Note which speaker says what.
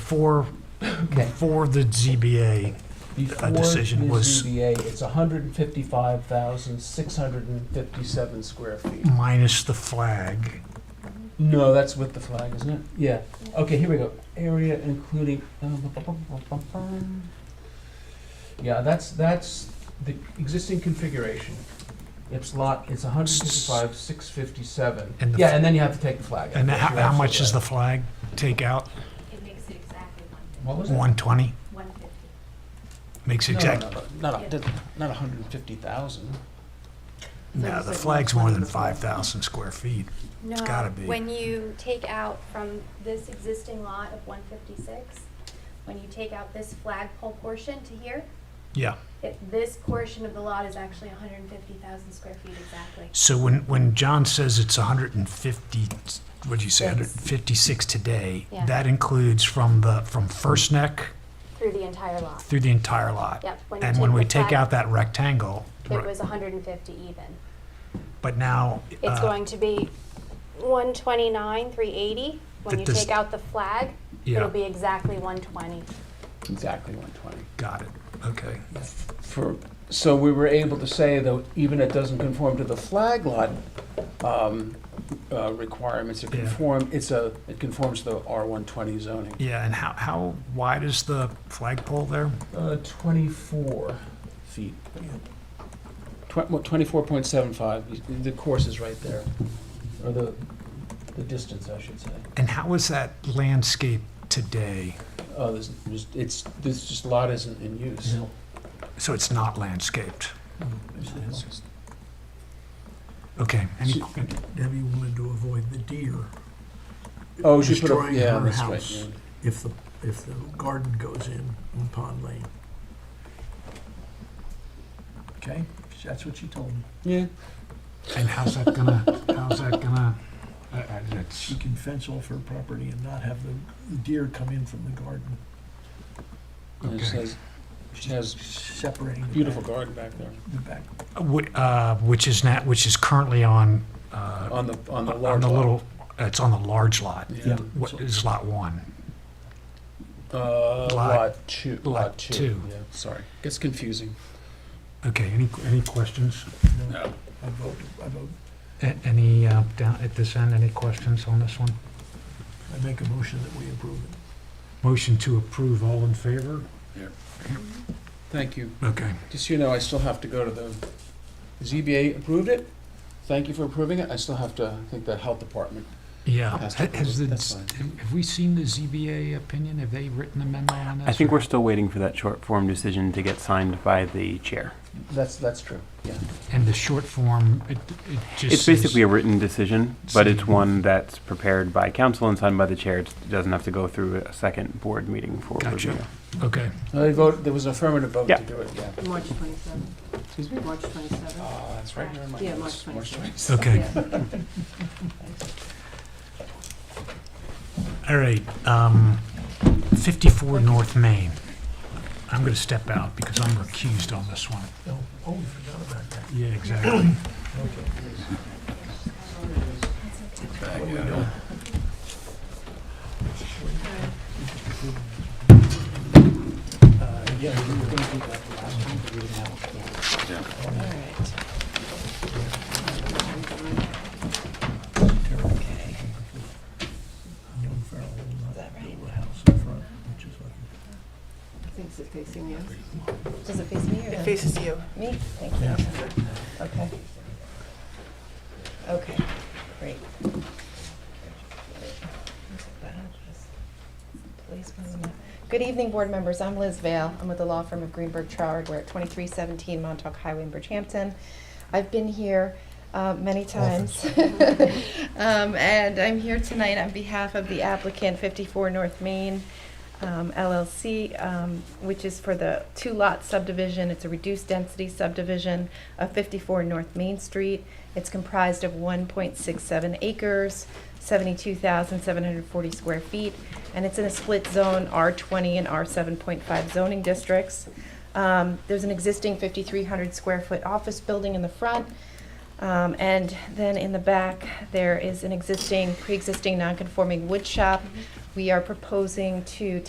Speaker 1: before, before the ZBA,
Speaker 2: Before
Speaker 1: decision
Speaker 2: the
Speaker 1: was-
Speaker 2: ZBA, it's hundred and fifty-five thousand, six hundred and fifty-seven square feet.
Speaker 1: minus the flag.
Speaker 2: No, that's with the flag, isn't it? Yeah. Okay, here we go. Area including. Yeah, that's, that's the existing configuration. It's lot, it's hundred and fifty-five, six fifty-seven.
Speaker 1: And the-
Speaker 2: Yeah, and then you have to take the flag. out.
Speaker 1: And
Speaker 2: Yes,
Speaker 1: how,
Speaker 2: you're
Speaker 1: how much does the
Speaker 2: absolutely
Speaker 1: flag take out?
Speaker 3: It makes it exactly
Speaker 2: right. What was it?
Speaker 1: One twenty?
Speaker 3: one fifty.
Speaker 1: Makes
Speaker 2: No, no,
Speaker 1: exact,
Speaker 2: no, no, Not, a- not hundred and fifty thousand.
Speaker 1: no, the flag's more than five thousand square feet.
Speaker 3: No,
Speaker 1: gotta be.
Speaker 3: when you take out from this existing lot of one fifty-six, when you take out this flagpole portion to here,
Speaker 1: Yeah.
Speaker 3: it, this portion of the lot is actually hundred and fifty thousand square feet exactly.
Speaker 1: So when, when John says it's hundred and fifty, what'd you say,
Speaker 3: Six.
Speaker 1: hundred and fifty-six today?
Speaker 3: Yeah.
Speaker 1: That includes from the, from First Neck
Speaker 3: Through the entire lot,
Speaker 1: through the entire lot.
Speaker 3: yep. you
Speaker 1: And when we
Speaker 3: the
Speaker 1: take
Speaker 3: flag-
Speaker 1: out that rectangle,
Speaker 3: It
Speaker 1: right,
Speaker 3: was hundred and fifty even.
Speaker 1: but now,
Speaker 3: It's
Speaker 1: uh,
Speaker 3: going to be one twenty-nine, three eighty. When
Speaker 1: That
Speaker 3: you
Speaker 1: does-
Speaker 3: take out the flag,
Speaker 1: yeah,
Speaker 3: it'll be exactly one twenty.
Speaker 2: Exactly one twenty.
Speaker 1: got it, okay.
Speaker 2: For, so we were able to say, though, even it doesn't conform to the flag lot um, uh, requirements, it
Speaker 1: Yeah.
Speaker 2: conform, it's a, it conforms to the R120 zoning.
Speaker 1: Yeah, and how, how wide is the flagpole there?
Speaker 2: Uh, 24 feet. Twen- well, 24.75, the course is right there, or the, the distance, I should say.
Speaker 1: And how is that landscape today?
Speaker 2: Oh, there's, there's- it's, this just lot isn't in use.
Speaker 1: So it's not landscaped? Okay, any,
Speaker 2: So-
Speaker 4: Debbie wanted to avoid the deer
Speaker 2: Oh, she put up,
Speaker 4: Destroying
Speaker 2: yeah,
Speaker 4: her
Speaker 2: that's right.
Speaker 4: house.
Speaker 2: yeah.
Speaker 4: if the, if the garden goes in on Pond Lane. Okay, that's what she told me.
Speaker 2: Yeah,
Speaker 1: and how's that gonna, how's that gonna, uh, uh, that's,
Speaker 4: She can fence off her property and not have the the deer come in from the garden,
Speaker 2: and
Speaker 1: Okay.
Speaker 2: it says, she has
Speaker 4: separating the
Speaker 2: beautiful
Speaker 4: back-
Speaker 2: garden back there.
Speaker 4: The back.
Speaker 1: whi- uh, which is not, which is currently on, uh,
Speaker 2: On the, on the
Speaker 1: on
Speaker 2: large
Speaker 1: the
Speaker 2: lot.
Speaker 1: little, it's on the large lot.
Speaker 2: Yeah.
Speaker 1: What is lot one? Lot-
Speaker 2: Uh, lot two.
Speaker 1: lot two.
Speaker 2: Yeah, sorry. Gets confusing.
Speaker 1: Okay, any, any questions?
Speaker 2: No.
Speaker 4: I vote, I vote,
Speaker 1: A- Any, uh, down at this end, any questions on this one?
Speaker 4: I make a motion that we approve it.
Speaker 1: Motion to approve, all in favor?
Speaker 2: Thank you.
Speaker 1: Okay.
Speaker 2: Just so you know, I still have to go to the, ZBA approved it. Thank you for approving it. I still have to, I think the health department.
Speaker 1: Yeah. Has
Speaker 2: Has to approve it,
Speaker 1: the,
Speaker 2: that's
Speaker 1: have we seen the ZBA opinion? Have they written a memo on this?
Speaker 5: I think
Speaker 1: or-
Speaker 5: we're still waiting for that short form decision to get signed by the chair.
Speaker 2: That's, that's true. Yeah.
Speaker 1: And the short form, it, it just.
Speaker 5: It's basically a
Speaker 1: says-
Speaker 5: written decision, but it's
Speaker 1: Says-
Speaker 5: one that's prepared by council and signed by the chair. It doesn't have to go through a second board meeting for
Speaker 1: Gotcha.
Speaker 5: review.
Speaker 1: Okay,
Speaker 2: They vote, there was an affirmative vote to
Speaker 5: Yeah.
Speaker 2: do it, yeah.
Speaker 6: March 27th,
Speaker 2: Excuse me?
Speaker 6: March 27th.
Speaker 2: Oh, that's right here in my
Speaker 6: Yeah,
Speaker 2: notes.
Speaker 6: March
Speaker 2: 27th.
Speaker 1: okay,
Speaker 6: Yeah.
Speaker 1: all right. um, 54 North Main. I'm going to step out because I'm recused on this one.
Speaker 4: No, oh, we forgot about that.
Speaker 1: Yeah, exactly.
Speaker 4: Uh,
Speaker 6: All right. Okay.
Speaker 4: Young Farrell will
Speaker 6: that
Speaker 4: not
Speaker 6: right?
Speaker 4: build a house in front, which is what.
Speaker 6: Thinks it facing you.
Speaker 7: Does it face me or?
Speaker 6: It faces you.
Speaker 7: Me? Thank you. Okay. Okay, great. Please, one moment. Good evening, board members. I'm Liz Vale. I'm with the law firm of Greenberg Traurig. We're at 2317 Montauk Highway in Bridgehampton. I've been here uh, many times. Um, And I'm here tonight on behalf of the applicant 54 North Main um, LLC, um, which is for the two-lot subdivision. It's a reduced-density subdivision of 54 North Main Street. It's comprised of 1.67 acres, 72,740 square feet, and it's in a split zone, R20 and R7.5 zoning districts. Um, There's an existing 5,300 square foot office building in the front, um, and then in the back, there is an existing, pre-existing non-conforming wood shop. We are proposing to